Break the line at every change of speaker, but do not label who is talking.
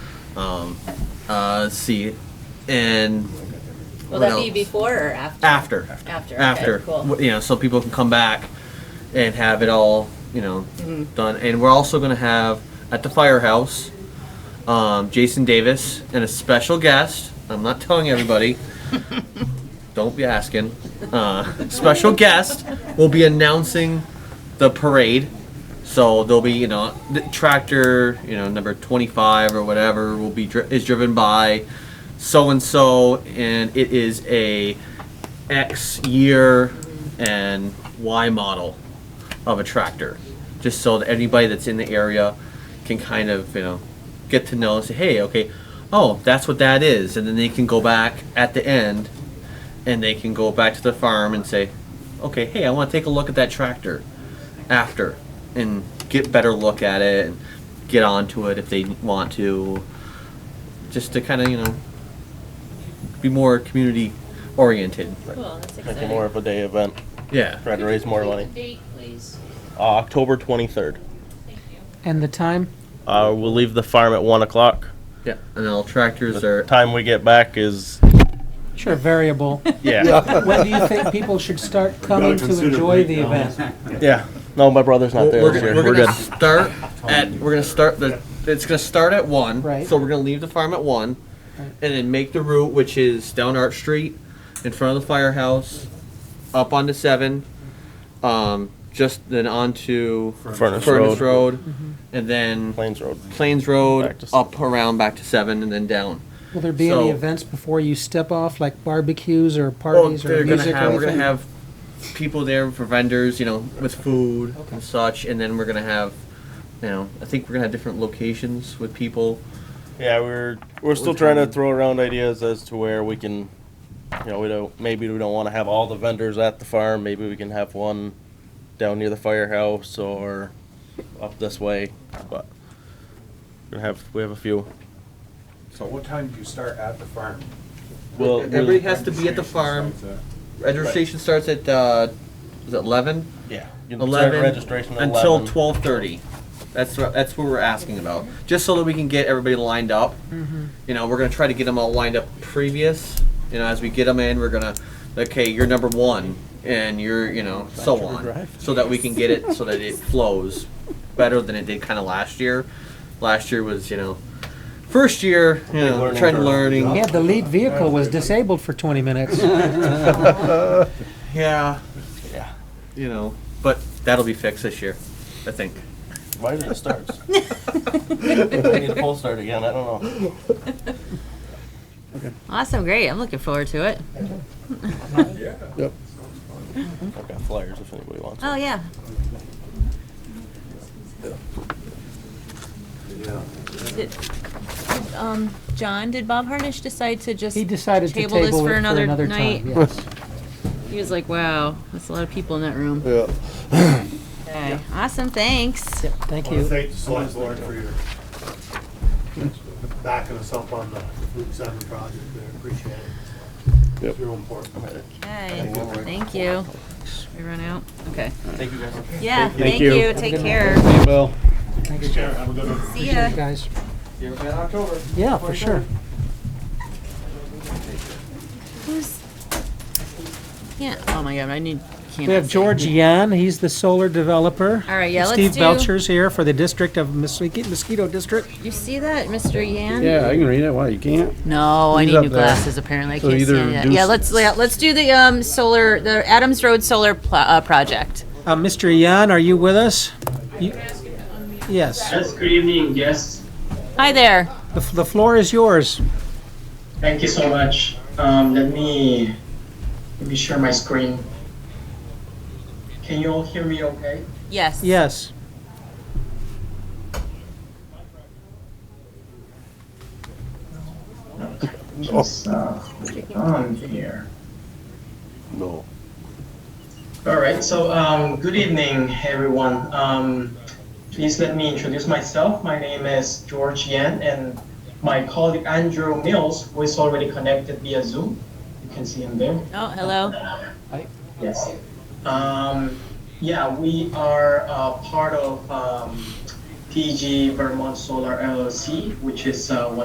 Um, uh, let's see, and what
Will that be
else?
before or after?
After.
After, okay,
After.
cool.
W- You know, so people can come back and have it all, you know,
Mm-hmm.
done. And we're also going to have at the firehouse um, Jason Davis and a special guest. I'm not telling everybody. Don't be asking. Uh, special guest will be announcing the parade. So there'll be, you know, the tractor, you know, number 25 or whatever will be dri- is driven by so and so, and it is a X year and Y model of a tractor, just so that anybody that's in the area can kind of you know get to know and say, hey, okay, oh, that's what that is, and then they can go back at the end, and they can go back to the farm and say, okay, hey, I want to take a look at that tractor after, and get better look at it and get onto it if they want to, just to kind of you know be more community oriented.
Cool, that's
Make it
exciting.
more of a day event,
Yeah.
try to raise more money.
Date, please.
Uh, October 23rd.
Thank you.
And the time?
Uh, we'll leave the farm at 1 o'clock.
Yeah, and all tractors
The
are.
time we get back is,
Sure, variable.
yeah,
When do you think people should start coming to
consider
enjoy the
breakdown.
event?
yeah. No, my brother's not
We're,
there
we're
this
gonna,
year.
we're
We're
gonna
good.
start at. We're gonna start the. It's gonna start at one.
Right.
So we're gonna leave the farm at one,
Right.
and then make the route, which is down Art Street, in front of the firehouse, up onto seven, um, just then onto
Furnace
Furnace
Road.
Road,
Mm-hmm.
and then
Plains Road.
Plains Road,
Back to
up around back to seven, and then down.
Will there be any
So-
events before you step off, like barbecues or parties
they're
or music
gonna
or
have, We're gonna
anything?
have people there for vendors, you know, with food and such, and then we're gonna have, you know, I think we're gonna have different locations with people.
Yeah, we're, we're still trying to throw around ideas as to where we can, you know, we don't, maybe we don't want to have all the vendors at the farm. Maybe we can have one down near the firehouse or up this way, but we're gonna have, we have a few.
So what time do you start at the farm?
Well,
Everybody has to be at the farm. Registration starts at uh, is it eleven?
Yeah. you can start
Eleven
registration at
until
11.
twelve thirty. That's what, that's what we're asking about, just so that we can get everybody lined up.
Mm-hmm.
You know, we're gonna try to get them all lined up previous. You know, as we get them in, we're gonna, okay, you're number one, and you're, you know, so on, so that we can get it, so that it flows better than it did kind of last year. Last year was, you know, first year, you know,
learning
trying to
curve.
learning.
Yeah, the lead vehicle was disabled for 20 minutes.
Yeah,
Yeah.
you know, but that'll be fixed this year, I think.
Why did it start? I need a pull start again. I don't know.
Awesome, great, I'm looking forward to it.
I've got flyers if anybody wants.
Oh, yeah. Did- did, Um, John, did Bob Harnish decide to just?
He decided to
Table this
table it
for
for
another
another
night.
time, yes.
He was like, wow, that's a lot of people in that room.
Yeah.
Okay, awesome, thanks.
Thank
I want to
you.
thank the select board for your backing us up on the Route 7 project there. Appreciate it. It's real important.
Okay, thank you. We run out, okay.
Thank you guys.
Yeah, thank
you.
you, take care.
Bill.
Thanks, Chair. Have a good one.
See ya.
Guys,
You're in October.
yeah, for sure.
Who's? Yeah, oh my god, I need. can't
We have
see.
George Yan, he's the solar developer.
All right, yeah, let's
Steve
do-
Belcher's here for the district of Mosquito Mosquito District.
You see that, Mr. Yan?
Yeah, I can read it. Why, you can't?
No, I
He's
need
up
new
there.
glasses. Apparently, I
So
can't see
either
any of that.
do
Yeah,
s-
let's yeah, let's do the um solar, the Adams Road solar pl- uh, project.
Uh, Mr. Yan, are you with us? You- Yes,
Yes, good evening. Yes,
Hi there.
the f- the floor is yours.
thank you so much. Um, let me let me share my screen. Can you all hear me? Okay.
Yes.
Yes.
Just uh, put it on here.
No.
All right. So, um, good evening, everyone. Um, please let me introduce myself. My name is George Yan, and my colleague Andrew Mills, who is already connected via Zoom. You can see him there.
Oh, hello.
Yes. Um, yeah, we are uh, part of um, PG Vermont Solar LLC, which is uh, one.